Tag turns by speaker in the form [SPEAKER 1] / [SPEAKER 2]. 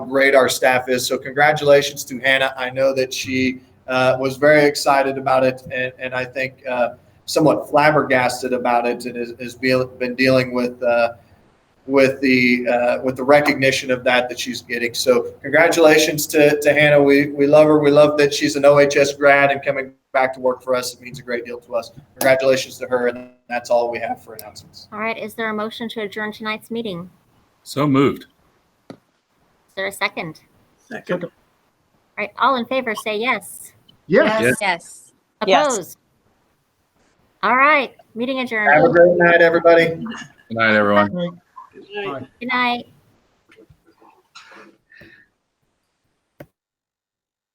[SPEAKER 1] great our staff is. So congratulations to Hannah. I know that she uh, was very excited about it, and, and I think uh, somewhat flabbergasted about it, and has, has be, been dealing with uh, with the uh, with the recognition of that that she's getting. So congratulations to, to Hannah. We we love her. We love that she's an OHS grad and coming back to work for us. It means a great deal to us. Congratulations to her, and that's all we have for announcements.
[SPEAKER 2] All right, is there a motion to adjourn tonight's meeting?
[SPEAKER 3] So moved.
[SPEAKER 2] Is there a second?
[SPEAKER 4] Second.
[SPEAKER 2] All right, all in favor, say yes.
[SPEAKER 4] Yes.
[SPEAKER 5] Yes. Yes.
[SPEAKER 2] Opposed? All right, meeting
[SPEAKER 1] Have a
[SPEAKER 2] adjourned.
[SPEAKER 1] great night, everybody.
[SPEAKER 3] Good night, everyone.
[SPEAKER 2] Good night.